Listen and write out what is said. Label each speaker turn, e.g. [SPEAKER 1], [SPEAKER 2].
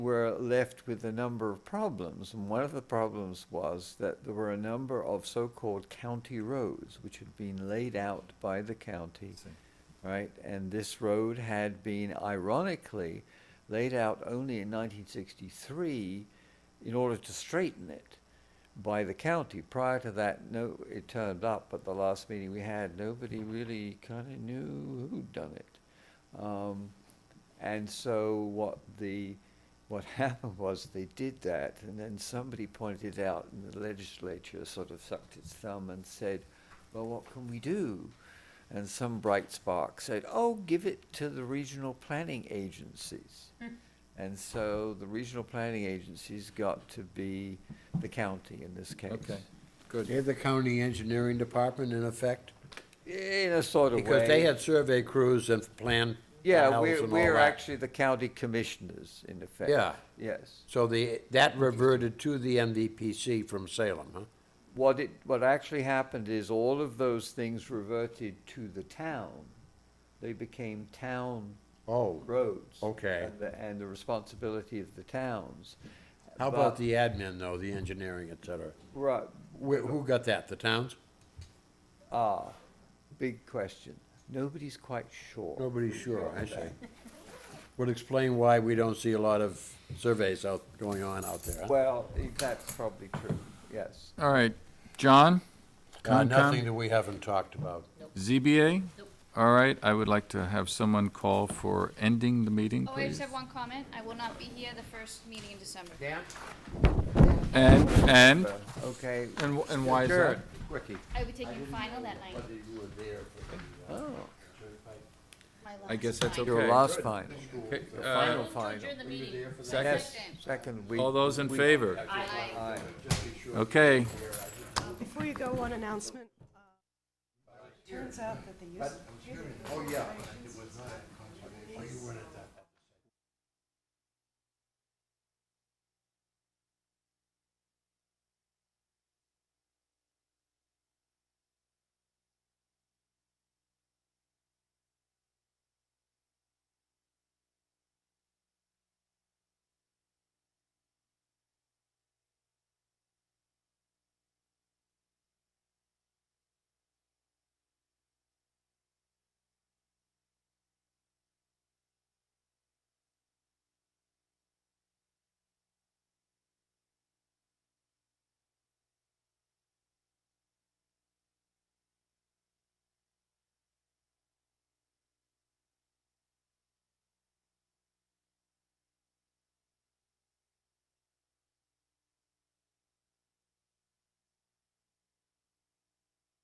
[SPEAKER 1] got left with a number of problems. And one of the problems was that there were a number of so-called county roads, which had been laid out by the county, right? And this road had been ironically laid out only in 1963 in order to straighten it by the county. Prior to that, no, it turned up at the last meeting we had, nobody really kind of knew who'd done it. Um, and so what the, what happened was they did that, and then somebody pointed out, and the legislature sort of sucked its thumb and said, well, what can we do? And some bright spark said, oh, give it to the regional planning agencies. And so the regional planning agencies got to be the county in this case.
[SPEAKER 2] Okay, good.
[SPEAKER 3] They're the county engineering department in effect,
[SPEAKER 1] In a sort of way.
[SPEAKER 3] because they had survey crews and planned the
[SPEAKER 1] Yeah,
[SPEAKER 3] house
[SPEAKER 1] we're,
[SPEAKER 3] and all
[SPEAKER 1] we're
[SPEAKER 3] that.
[SPEAKER 1] actually the county commissioners in effect.
[SPEAKER 3] Yeah.
[SPEAKER 1] Yes.
[SPEAKER 3] So the, that reverted to the MVPC from Salem, huh?
[SPEAKER 1] What it, what actually happened is all of those things reverted to the town. They became town
[SPEAKER 3] Oh,
[SPEAKER 1] roads.
[SPEAKER 3] Okay.
[SPEAKER 1] And the, and the responsibility of the towns.
[SPEAKER 3] how
[SPEAKER 1] But-
[SPEAKER 3] about the admin though, the engineering, et cetera?
[SPEAKER 1] Right,
[SPEAKER 3] Wh- Who got that, the towns?
[SPEAKER 1] ah, big question. Nobody's quite sure.
[SPEAKER 3] Nobody's sure, I see. Would explain why we don't see a lot of surveys out, going on out there, huh?
[SPEAKER 1] Well, i- that's probably true, yes.
[SPEAKER 2] All right, John?
[SPEAKER 3] Uh,
[SPEAKER 2] Concom?
[SPEAKER 3] Nothing that we haven't talked about.
[SPEAKER 2] ZBA? All right, I would like to have someone call for ending the meeting,
[SPEAKER 4] Oh, I just
[SPEAKER 2] please.
[SPEAKER 4] have one comment. I will not be here the first meeting in December.
[SPEAKER 2] And, and,
[SPEAKER 1] Uh, Okay.
[SPEAKER 2] and wh- and why is
[SPEAKER 1] Sure.
[SPEAKER 2] that?
[SPEAKER 1] Quickie.
[SPEAKER 4] I will be taking final that night.
[SPEAKER 1] Oh,
[SPEAKER 4] my
[SPEAKER 2] I
[SPEAKER 4] last
[SPEAKER 2] guess that's
[SPEAKER 4] night.
[SPEAKER 2] okay.
[SPEAKER 1] your last find,
[SPEAKER 2] Okay,
[SPEAKER 1] the
[SPEAKER 2] uh,
[SPEAKER 1] final
[SPEAKER 4] To
[SPEAKER 1] final.
[SPEAKER 4] adjourn the meeting.
[SPEAKER 2] Second,
[SPEAKER 4] Second.
[SPEAKER 1] Second, we.
[SPEAKER 2] all those in
[SPEAKER 1] we-
[SPEAKER 2] favor?
[SPEAKER 4] Aye.
[SPEAKER 1] Aye.
[SPEAKER 2] Okay.
[SPEAKER 5] Um, Before you go, one announcement. Uh, Turns out that the use.